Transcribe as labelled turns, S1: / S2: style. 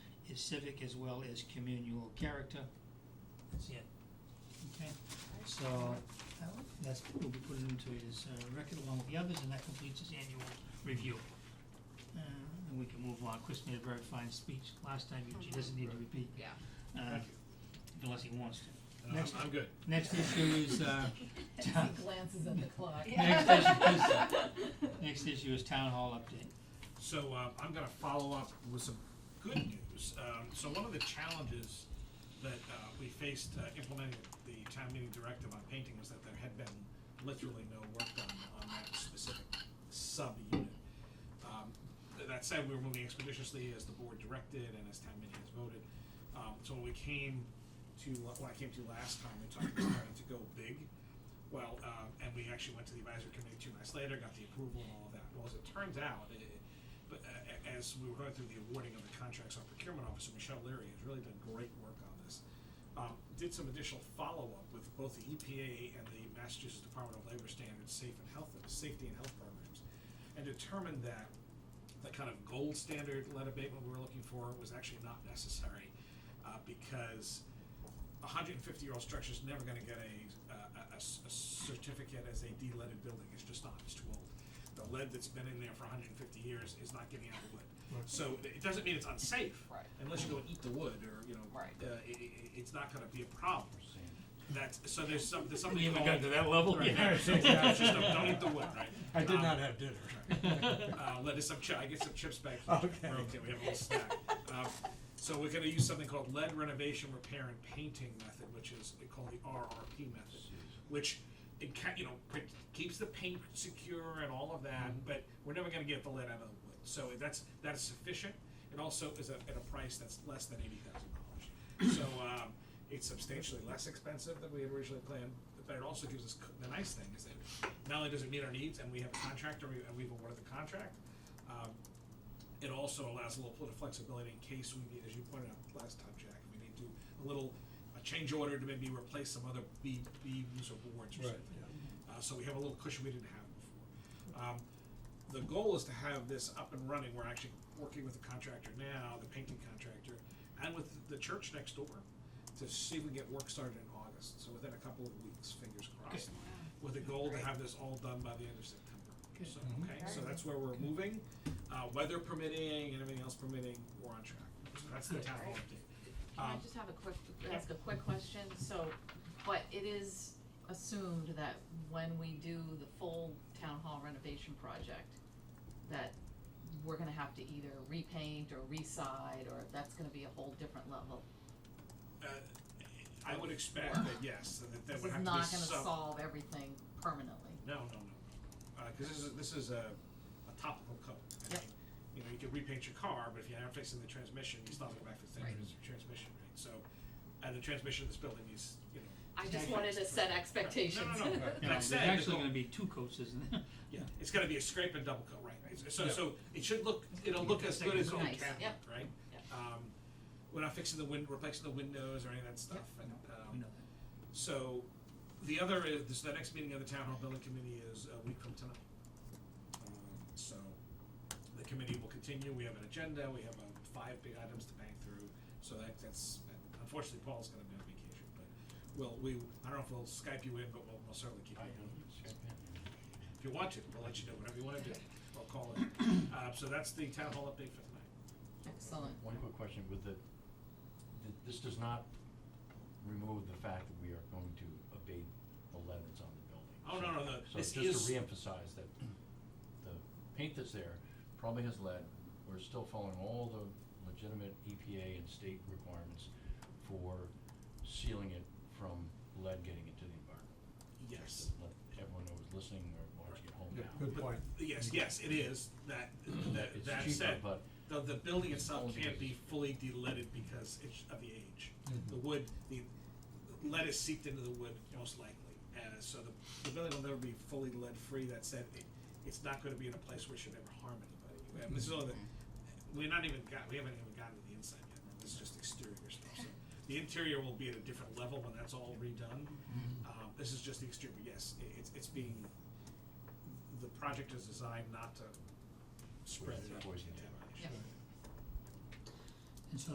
S1: is civic as well as communal character. That's it. Okay, so uh, that's, will be put into his uh, record along with the others, and that completes his annual review. Uh, And we can move on. Chris made a very fine speech last time, Eugene doesn't need to repeat.
S2: Yeah.
S1: uh,
S3: Thank
S1: Unless he wants to.
S3: No,
S1: Next.
S3: I'm, I'm good.
S1: Next issue is, uh,
S2: As he glances at the clock.
S1: next issue is, next issue is town hall update.
S3: So um, I'm going to follow up with some good news. Um, so one of the challenges that uh, we faced uh, implementing the town meeting directive on painting was that there had been literally no work done on that specific sub-unit. Um, th- that said, we were moving expeditiously as the board directed and as town meeting has voted. Um, so when we came to, when I came to last time, we talked about starting to go big. Well, um, and we actually went to the advisory committee two nights later, got the approval and all of that. Well, as it turns out, i but uh, a- as we were going through the awarding of the contracts, our procurement officer, Michelle Leary, has really done great work on this. Um, did some additional follow-up with both the EPA and the Massachusetts Department of Labor Standards Safe and Health, Safety and Health Programs, and determined that the kind of gold standard lead abatement we were looking for was actually not necessary, uh, because a hundred and fifty year old structure is never gonna get a, uh, a, a s- a certificate as a de-leaded building, it's just not, it's too old. The lead that's been in there for hundred and fifty years is not getting out of the wood. So it it doesn't mean it's unsafe.
S2: Right.
S3: Unless you go and eat the wood or, you know,
S2: Right.
S3: uh, i- i- it's not gonna be a problem. That's, so there's some, there's something
S1: We haven't gotten to
S3: called-
S1: that level
S3: Right,
S1: yet.
S3: it's just a- don't eat the wood, right?
S4: I did
S3: Um,
S4: not have dinner.
S3: uh, let us some chi- I get some chips back. from
S4: Okay.
S3: Broke it, we have a little snack. Um, so we're gonna use something called lead renovation repair and painting method, which is they call the RRP method, which it ca- you know pre- keeps the paint secure and all of that, but we're never gonna get the lead out of the wood. So that's that is sufficient. It also is a, at a price that's less than eighty thousand dollars. So um, it's substantially less expensive than we had originally planned, but it also gives us, c- the nice thing is that not only does it meet our needs and we have a contractor we- and we've awarded the contract, um, it also allows a little bit of flexibility in case we need, as you pointed out last time, Jack, we need to, a little, a change order to maybe replace some other be- beams or boards or
S4: Right,
S3: something. Uh, so we have a little cushion we didn't have before. Um, the goal is to have this up and running. We're actually working with the contractor now, the painting contractor, and with the church next door to see if we can get work started in August. So within a couple of weeks, fingers crossed. With a goal to have this all done by the end of September.
S1: Good.
S3: So, okay, so that's where we're moving. Uh, weather permitting and everything else permitting, we're on track. So that's the
S1: Good.
S3: town hall
S2: Can I
S3: update. Um,
S2: just have a quick,
S3: yeah.
S2: ask a quick question? So, but it is assumed that when we do the full town hall renovation project, that we're gonna have to either repaint or reside, or that's gonna be a whole different level.
S3: uh, I would expect that, yes, that that
S2: This
S3: would
S2: is
S3: have to be
S2: not
S3: some-
S2: gonna solve everything permanently.
S3: No, no, no. Because this is, this is a, a topical coat. I
S2: Yep.
S3: mean, you know, you can repaint your car, but if you're not fixing the transmission, you still have to go back to the same
S2: Right.
S3: transmission, right? So, and the transmission of this building is, you know.
S2: I just wanted to set expectations.
S3: No, no, no.
S1: You know,
S3: Like I
S1: There's
S3: said, the
S1: actually
S3: goal-
S1: gonna be two coats, isn't there?
S3: Yeah, it's gonna be a scrape and double coat, right? It's- So,
S4: Yeah.
S3: so it should look, it'll look as good as old
S2: Nice,
S3: cabinet,
S2: yep.
S3: right?
S2: Yep.
S3: Um, we're not fixing the win, replacing the windows or any of that stuff. And,
S1: We
S3: um,
S1: know that.
S3: so, the other is, this- the next meeting of the town hall building committee is a week from tonight. Um, So, the committee will continue, we have an agenda, we have, um, five big items to bang through, so that, that's, unfortunately, Paul's gonna be on vacation, but we'll, we, I don't know if we'll Skype you in, but we'll, we'll certainly keep you in. If you want to, we'll let you do whatever you wanna do, I'll call it. Uh, so that's the town hall update for tonight.
S2: Excellent.
S5: One quick question with the, th- this does not remove the fact that we are going to abate the lead that's on the building.
S3: Oh, no, no, no,
S5: So
S3: this
S5: just
S3: is-
S5: to reemphasize that the paint that's there probably has lead, we're still following all the legitimate EPA and state requirements for sealing it from lead getting into the environment.
S3: Yes.
S5: Just to Let everyone know who's listening or watching at home
S4: Good-
S5: now.
S4: Good
S3: But-
S4: point.
S3: Yes, yes, it is, that, that,
S5: It's
S3: that
S5: cheaper,
S3: said,
S5: but-
S3: the, the building itself
S5: Only
S3: can't be
S5: because-
S3: fully de-leaded because it's of the age.
S4: Mhm.
S3: The wood, the lead is seeped into the wood most likely, and so the, the building will never be fully lead-free, that said, it, it's not gonna be in a place where it should ever harm anybody. And this is all the,
S5: Mm-hmm.
S3: we're not even got, we haven't even gotten to the inside yet, this is just exterior stuff, so. The interior will be at a different level when that's all redone,
S4: Mm-hmm.
S3: um, this is just the exterior, but yes, it, it's, it's being, the project is designed not to spread
S5: Poison-
S3: it.
S5: poison
S3: Yeah.
S2: Yep.